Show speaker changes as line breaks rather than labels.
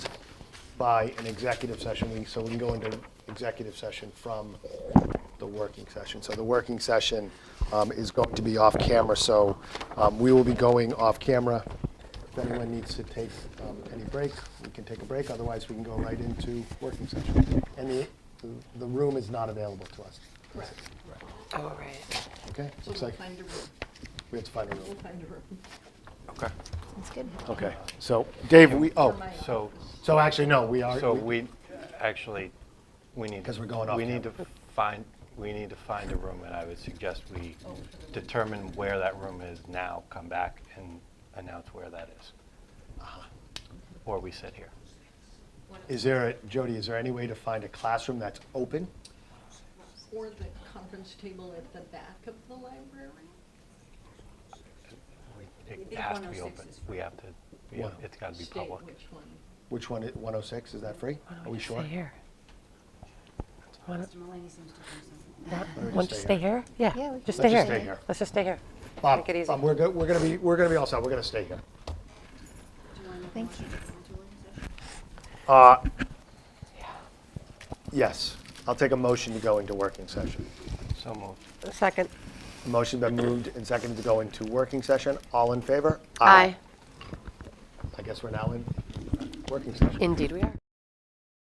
by an executive session, we, so we can go into executive session from the working session. So the working session um, is going to be off camera, so um, we will be going off camera. If anyone needs to take um, any break, we can take a break, otherwise we can go right into working session. And the, the room is not available to us,
Correct.
All Oh, right.
okay?
So
Looks
we'll
like
find a room.
we have to find a
We'll
room.
find a room.
Okay,
That's good.
Okay, so Dave, we, oh,
For my office.
so,
so actually, no, we are.
so we, actually, we need.
'Cause we're going off
We need to find, we need to find a room, and I would suggest we determine where that room is now, come back and announce where that is.
Uh-huh.
Or we sit here.
Is there, a- Jody, is there any way to find a classroom that's open?
Or the conference table at the back of the library.
We- It has to be open. We have to, we have-
Wow.
it's got to be
State
public.
which one.
Which one, i- 106, is that free? Are we sure?
here.
Mr. Mulaney seems to think something.
Want to stay here? Yeah.
Yeah, we
Just
can
stay here.
stay here.
Let's just stay here.
Bob,
Make it easy.
Bob, we're go- we're gonna be, we're gonna be all set, we're gonna stay here.
Do you want to make a
Thank
motion to go into working session?
Uh, Yes, I'll take a motion to go into working session.
So moved.
Second.
A Motion been moved and seconded to go into working session, all in favor? I guess we're now in working session.
Indeed we are.